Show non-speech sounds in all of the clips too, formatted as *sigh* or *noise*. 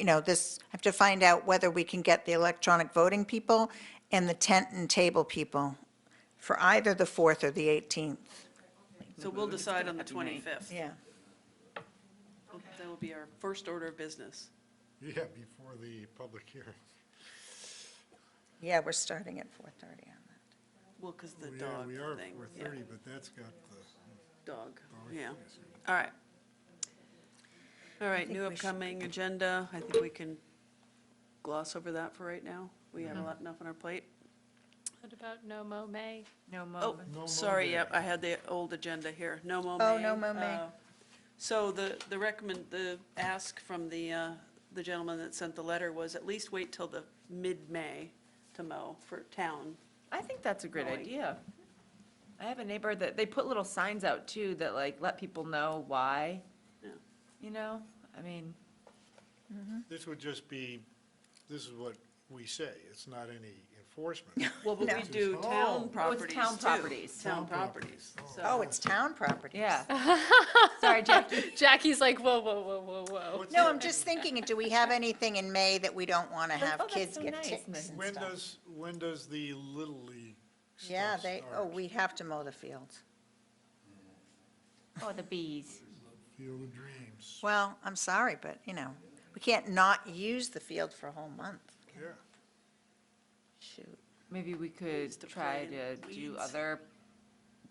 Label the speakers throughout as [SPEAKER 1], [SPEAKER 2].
[SPEAKER 1] you know, this, I have to find out whether we can get the electronic voting people and the tent and table people for either the 4th or the 18th.
[SPEAKER 2] So we'll decide on the 25th.
[SPEAKER 1] Yeah.
[SPEAKER 2] That will be our first order of business.
[SPEAKER 3] Yeah, before the public hearing.
[SPEAKER 1] Yeah, we're starting at 4:30 on that.
[SPEAKER 2] Well, because the
[SPEAKER 3] We are-
[SPEAKER 2] dog
[SPEAKER 3] We are
[SPEAKER 2] thing.
[SPEAKER 3] at four
[SPEAKER 2] yeah,
[SPEAKER 3] thirty, but that's got the,
[SPEAKER 2] Dog, yeah. All right. All right, new
[SPEAKER 1] we should
[SPEAKER 2] upcoming agenda. I think we can gloss over that for right now. We
[SPEAKER 1] Mm-hmm.
[SPEAKER 2] have a lot enough on our plate.
[SPEAKER 4] What about no mo May?
[SPEAKER 5] No
[SPEAKER 2] Oh,
[SPEAKER 5] moment.
[SPEAKER 3] No
[SPEAKER 2] sorry,
[SPEAKER 3] Mo
[SPEAKER 2] yep,
[SPEAKER 3] May.
[SPEAKER 2] I had the old agenda here. No mo
[SPEAKER 1] Oh,
[SPEAKER 2] May.
[SPEAKER 1] no Mo May.
[SPEAKER 2] uh, So the, the recommend, the ask from the, uh, the gentleman that sent the letter was at least wait till the mid-May to mow for town.
[SPEAKER 5] I think that's a great
[SPEAKER 2] Mowing.
[SPEAKER 5] idea. I have a neighbor that, they put little signs out too that like let people know why,
[SPEAKER 2] Yeah.
[SPEAKER 5] you know? I mean,
[SPEAKER 3] this would just be, this is what we say, it's not any
[SPEAKER 1] *laughs*
[SPEAKER 3] enforcement.
[SPEAKER 2] Well, but we
[SPEAKER 3] No.
[SPEAKER 2] do
[SPEAKER 3] Oh.
[SPEAKER 2] town properties too.
[SPEAKER 5] town properties.
[SPEAKER 2] Town
[SPEAKER 3] Town
[SPEAKER 2] properties,
[SPEAKER 3] properties.
[SPEAKER 2] so.
[SPEAKER 1] Oh, it's town property.
[SPEAKER 5] yeah. *laughs* Sorry, Jackie.
[SPEAKER 4] *laughs* Jackie's like, whoa, whoa, whoa, whoa, whoa.
[SPEAKER 3] What's
[SPEAKER 1] No,
[SPEAKER 3] the-
[SPEAKER 1] I'm just thinking, do we have anything in May that we don't want to
[SPEAKER 5] oh,
[SPEAKER 1] have
[SPEAKER 5] that's
[SPEAKER 1] kids
[SPEAKER 5] so
[SPEAKER 1] get
[SPEAKER 5] nice,
[SPEAKER 1] ticks
[SPEAKER 5] Miss-
[SPEAKER 1] and
[SPEAKER 3] When
[SPEAKER 1] stuff?
[SPEAKER 3] does, when does the Little League stuff
[SPEAKER 1] Yeah, they, oh,
[SPEAKER 3] start?
[SPEAKER 1] we have to mow the fields.
[SPEAKER 5] Oh, the bees.
[SPEAKER 3] Field of Dreams,
[SPEAKER 1] Well, I'm sorry, but, you know, we can't not use the field for a whole month.
[SPEAKER 3] yeah.
[SPEAKER 1] Shoot.
[SPEAKER 5] Maybe we could
[SPEAKER 2] to
[SPEAKER 5] try to
[SPEAKER 2] plant
[SPEAKER 5] do
[SPEAKER 2] weeds.
[SPEAKER 5] other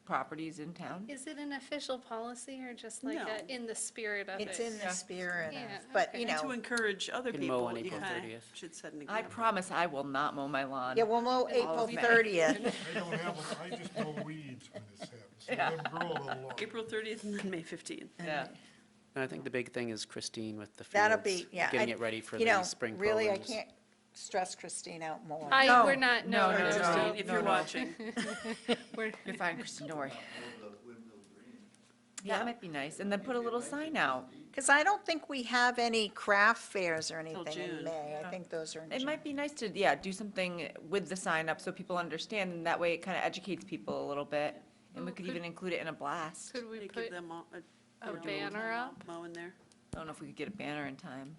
[SPEAKER 5] properties in town.
[SPEAKER 4] Is it an official policy or just like
[SPEAKER 2] No.
[SPEAKER 4] a- in the spirit of it?
[SPEAKER 1] It's in the spirit
[SPEAKER 4] Yeah,
[SPEAKER 1] of, but,
[SPEAKER 4] okay.
[SPEAKER 1] you
[SPEAKER 2] And to
[SPEAKER 1] know,
[SPEAKER 2] encourage other
[SPEAKER 6] Can mow
[SPEAKER 2] people,
[SPEAKER 6] on
[SPEAKER 2] you
[SPEAKER 6] April
[SPEAKER 2] kind
[SPEAKER 6] 30th.
[SPEAKER 2] of should set an
[SPEAKER 5] I
[SPEAKER 2] example.
[SPEAKER 5] promise I will not mow my lawn.
[SPEAKER 1] yeah, we'll mow April
[SPEAKER 5] May.
[SPEAKER 1] 30th.
[SPEAKER 3] I don't have, a- I just mow weeds when
[SPEAKER 1] *laughs*
[SPEAKER 3] this happens, so let them grow a little longer.
[SPEAKER 2] April 30th and then May 15th.
[SPEAKER 5] Yeah.
[SPEAKER 6] And I think the big thing is Christine with the fields.
[SPEAKER 1] That'll be, yeah.
[SPEAKER 6] Getting
[SPEAKER 1] I-
[SPEAKER 6] it ready for
[SPEAKER 1] you
[SPEAKER 6] the
[SPEAKER 1] know,
[SPEAKER 6] spring programs.
[SPEAKER 1] Really, I can't stress Christine out more.
[SPEAKER 4] I,
[SPEAKER 5] No,
[SPEAKER 4] we're not, no,
[SPEAKER 5] no,
[SPEAKER 4] Oh, no,
[SPEAKER 5] no,
[SPEAKER 2] Christine,
[SPEAKER 4] no.
[SPEAKER 2] if
[SPEAKER 5] no,
[SPEAKER 2] you're
[SPEAKER 4] *laughs*
[SPEAKER 5] no.
[SPEAKER 2] watching,
[SPEAKER 5] We're- You're fine, Kristen, don't worry.
[SPEAKER 2] Yeah.
[SPEAKER 5] That might be nice. And then put a little sign out.
[SPEAKER 1] Because I don't think we have any craft fairs or
[SPEAKER 2] Till
[SPEAKER 1] anything in
[SPEAKER 2] June.
[SPEAKER 1] May. I think those are in
[SPEAKER 5] It
[SPEAKER 1] June.
[SPEAKER 5] might be nice to, yeah, do something with the sign up so people understand, and that way it kind of educates people a little bit. And we
[SPEAKER 4] Oh,
[SPEAKER 5] could
[SPEAKER 4] could-
[SPEAKER 5] even include it in a blast. I
[SPEAKER 4] Could we
[SPEAKER 2] they
[SPEAKER 4] put,
[SPEAKER 2] give them all a.
[SPEAKER 4] a
[SPEAKER 2] they're doing
[SPEAKER 4] banner
[SPEAKER 2] mow-
[SPEAKER 4] up?
[SPEAKER 2] Mow in there.
[SPEAKER 5] don't know if we could get a banner in time.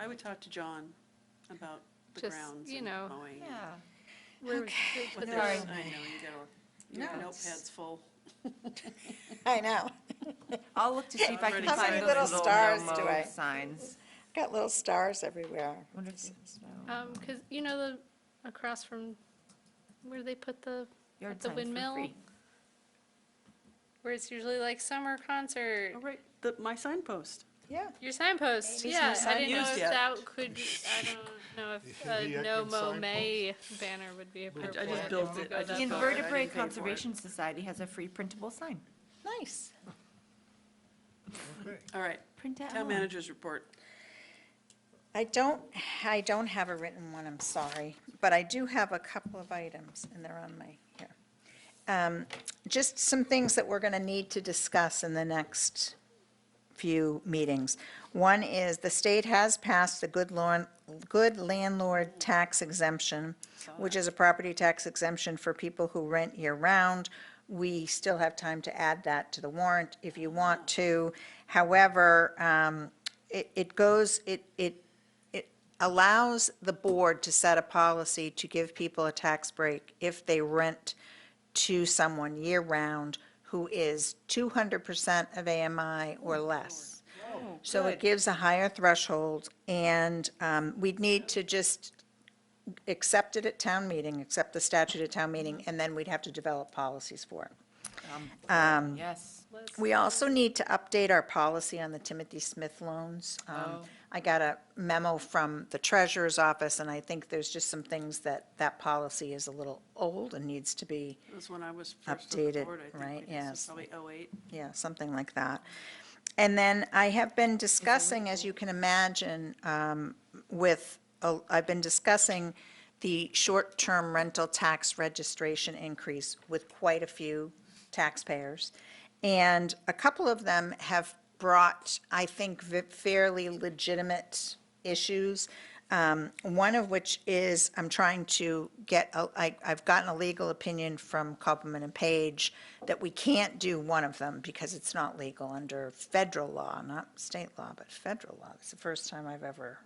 [SPEAKER 2] I would talk to John about the
[SPEAKER 4] Just,
[SPEAKER 2] grounds
[SPEAKER 4] you
[SPEAKER 2] and
[SPEAKER 4] know,
[SPEAKER 2] mowing. and
[SPEAKER 5] Yeah.
[SPEAKER 4] where would you
[SPEAKER 2] what
[SPEAKER 4] put
[SPEAKER 2] they're-
[SPEAKER 5] Sorry.
[SPEAKER 2] I
[SPEAKER 4] this?
[SPEAKER 2] know, you got, your
[SPEAKER 1] No, it's-
[SPEAKER 2] notepad's full.
[SPEAKER 1] *laughs* I know.
[SPEAKER 5] I'll look to see if I
[SPEAKER 2] Already
[SPEAKER 5] can
[SPEAKER 2] How many
[SPEAKER 5] find those
[SPEAKER 2] little
[SPEAKER 5] little
[SPEAKER 1] stars
[SPEAKER 5] no-mo
[SPEAKER 1] do I-
[SPEAKER 5] signs.
[SPEAKER 1] Got little stars everywhere.
[SPEAKER 5] Wonder if there's no
[SPEAKER 4] Um, because, you know, the, across from, where they put the,
[SPEAKER 5] yard
[SPEAKER 4] at the
[SPEAKER 5] signs for
[SPEAKER 4] windmill?
[SPEAKER 5] free.
[SPEAKER 4] where it's usually like summer concert,
[SPEAKER 2] All right, the, my signpost.
[SPEAKER 1] Yeah.
[SPEAKER 4] your signpost,
[SPEAKER 1] Maybe it's
[SPEAKER 4] yeah.
[SPEAKER 1] not
[SPEAKER 4] I didn't know
[SPEAKER 2] used
[SPEAKER 4] if
[SPEAKER 2] yet.
[SPEAKER 4] that could, I don't know if
[SPEAKER 3] The
[SPEAKER 4] a no
[SPEAKER 3] Atkins
[SPEAKER 4] mo May banner would be appropriate. if
[SPEAKER 2] built
[SPEAKER 4] we
[SPEAKER 2] it.
[SPEAKER 4] go
[SPEAKER 2] I
[SPEAKER 4] that
[SPEAKER 2] just
[SPEAKER 5] The
[SPEAKER 2] built
[SPEAKER 4] far.
[SPEAKER 2] it. I
[SPEAKER 5] Invertebrate
[SPEAKER 2] didn't pay for it.
[SPEAKER 5] Conservation Society has a free printable sign.
[SPEAKER 1] Nice.
[SPEAKER 3] Okay.
[SPEAKER 2] All right,
[SPEAKER 5] Print it
[SPEAKER 2] town
[SPEAKER 5] out.
[SPEAKER 2] manager's report.
[SPEAKER 1] I don't, I don't have a written one, I'm sorry, but I do have a couple of items, and they're on my, here. Um, Just some things that we're going to need to discuss in the next few meetings. One is, the state has passed the good lawn, good landlord tax exemption, which is a property tax exemption for people who rent year-round. We still have time to add that to the warrant if you want to. However, um, it, it goes, it, it it allows the board to set a policy to give people a tax break if they rent to someone year-round who is 200% of AMI or less. So it gives a higher threshold, and um, we'd need to just accept it at town meeting, accept the statute at town meeting, and then we'd have to develop policies for it.
[SPEAKER 5] Yes.
[SPEAKER 1] We also need to update our policy on the Timothy Smith loans. Um,
[SPEAKER 5] Oh.
[SPEAKER 1] I got a memo from the treasurer's office, and I think there's just some things that that policy is a little old and needs to be,
[SPEAKER 2] It was when I was first on the
[SPEAKER 1] Updated,
[SPEAKER 2] board, I think.
[SPEAKER 1] right,
[SPEAKER 2] we did, so
[SPEAKER 1] yes.
[SPEAKER 2] Probably '08.
[SPEAKER 1] yeah, something like that. And then I have been discussing, as you can imagine, um, with, uh, I've been discussing the short-term rental tax registration increase with quite a few taxpayers. And a couple of them have brought, I think, v- fairly legitimate issues. Um, um, one of which is, I'm trying to get, a- I, I've gotten a legal opinion from Copeland and Page that we can't do one of them because it's not legal under federal law, not state law, but federal law. It's the first time I've ever